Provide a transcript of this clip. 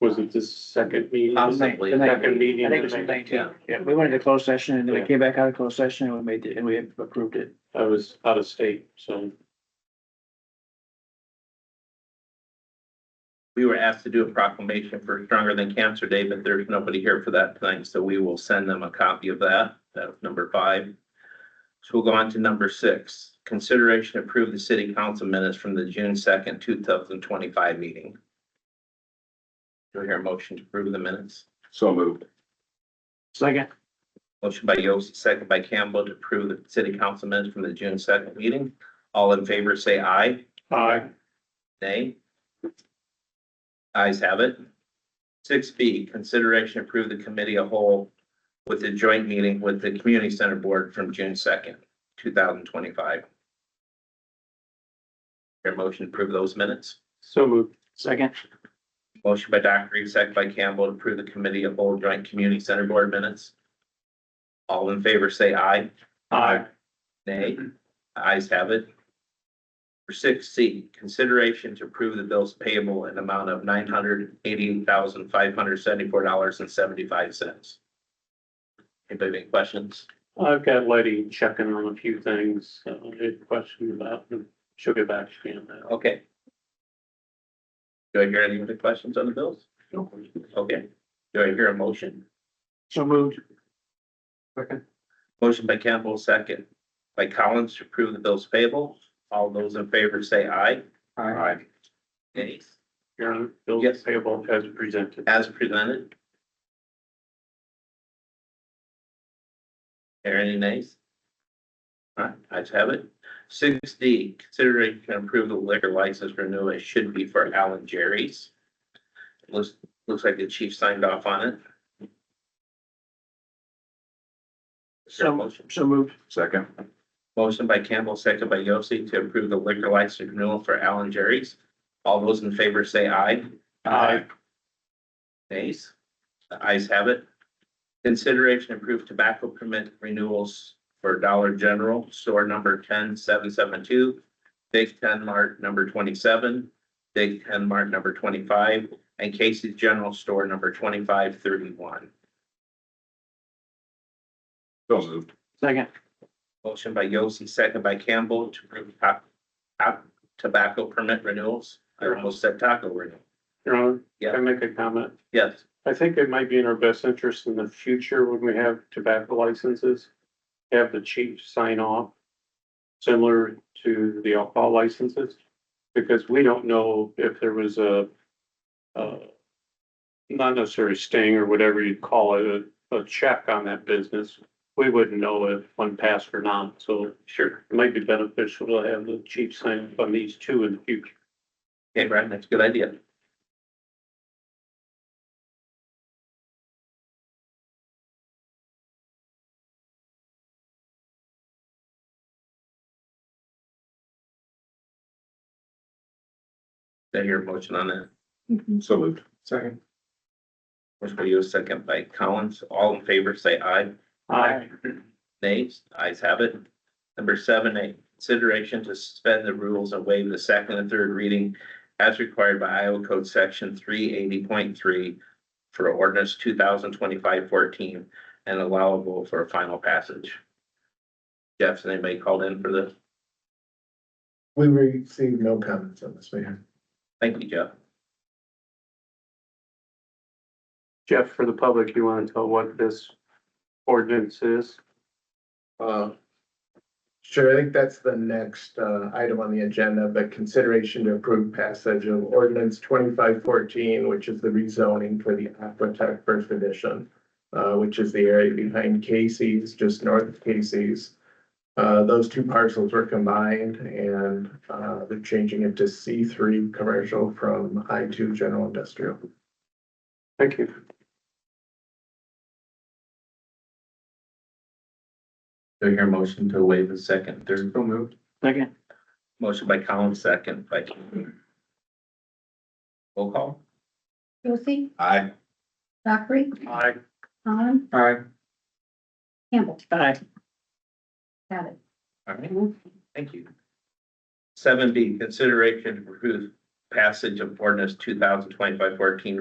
was it the second meeting? Possibly. The Second meeting. I think it was the nineteenth. Yeah, we went into closed session and then we Yeah. came back out of closed session and we made it, and we approved it. I was out of state, so. We were asked to do a proclamation for Stronger Than Cancer Day, but there's nobody here for that tonight, so we will send them a copy of that. That's number five. So we'll go on to number six, consideration approve the city council minutes from the June second, two thousand twenty-five meeting. Do I hear a motion to approve the minutes? So moved. Second, Motion by Yost, second by Campbell to approve the city council minutes from the June second meeting. All in favor, say aye. Aye. Nay. Ayes have it. Six B, consideration approve the committee a whole with a joint meeting with the community center board from June second, two thousand twenty-five. Your motion to approve those minutes? So moved. second, Motion by Dr. Reed, second by Campbell to approve the committee of whole joint community center board minutes. All in favor, say aye. Aye. Nay. Ayes have it. For six C, consideration to approve the bills payable in amount of nine hundred eighty thousand five hundred seventy-four dollars and seventy-five cents. Anybody have any questions? I've got Letty checking on a few things, uh, I had a question about, and she'll get back to me on that. Okay. Do I hear any other questions on the bills? Okay. Do I hear a motion? so moved, Motion by Campbell, second by Collins to approve the bills payable. All those in favor say aye. Aye. Nay, Your Honor, bills Yes. payable as presented. as presented. Are any nays? Alright, I have it. Six D, consideration to approve the liquor license renewal, it should be for Alan Jerry's. Looks, looks like the chief signed off on it. Is there a So- motion? so moved, Second. Motion by Campbell, second by Yossi to approve the liquor license renewal for Allen Jerry's. All those in favor say aye. Aye. Nays? The ayes have it. Consideration approved tobacco permit renewals for Dollar General, store number ten seven seven two, Big Ten Mart number twenty-seven, Big Ten Mart number twenty-five, and Casey's General Store number twenty-five thirty-one. So moved. second, Motion by Yossi, second by Campbell to approve top, top tobacco permit renewals. I almost said taco renewal. Your Honor, Yeah. can I make a comment? Yes, I think it might be in our best interest in the future when we have tobacco licenses, have the chief sign off. Similar to the alcohol licenses, because we don't know if there was a, uh. Not necessarily sting or whatever you'd call it, a, a check on that business. We wouldn't know if one passed or not, so sure. it might be beneficial to have the chief sign up on these two in the future. Okay, Brian, that's a good idea. Did I hear a motion on that? So moved. second. Motion by Yost, second by Collins. All in favor, say aye. Aye. Nays, ayes have it. Number seven, a consideration to suspend the rules and waive the second and third reading as required by Iowa Code Section three eighty point three for ordinance 2025-14 and allowable for a final passage. Jeff, has anybody called in for this? We received no comments on this, Mayor. Thank you, Jeff. Jeff, for the public, you want to tell what this ordinance is? Uh, Sure, I think that's the next uh, item on the agenda, but consideration to approve passage of ordinance twenty-five fourteen, which is the rezoning for the Aquatech First Edition, uh, which is the area behind Casey's, just north of Casey's. Uh, Those two parcels were combined and uh, they're changing it to C three commercial from I two general industrial. Thank you. Do I hear a motion to waive the second, third? So moved. Second, Motion by Collins, second by Campbell. Roll call. Josie, Aye. Dockery, Aye. Khan, aye. Campbell, Aye. got it. All right, thank you. Seven B, consideration to approve passage of ordinance 2025-14,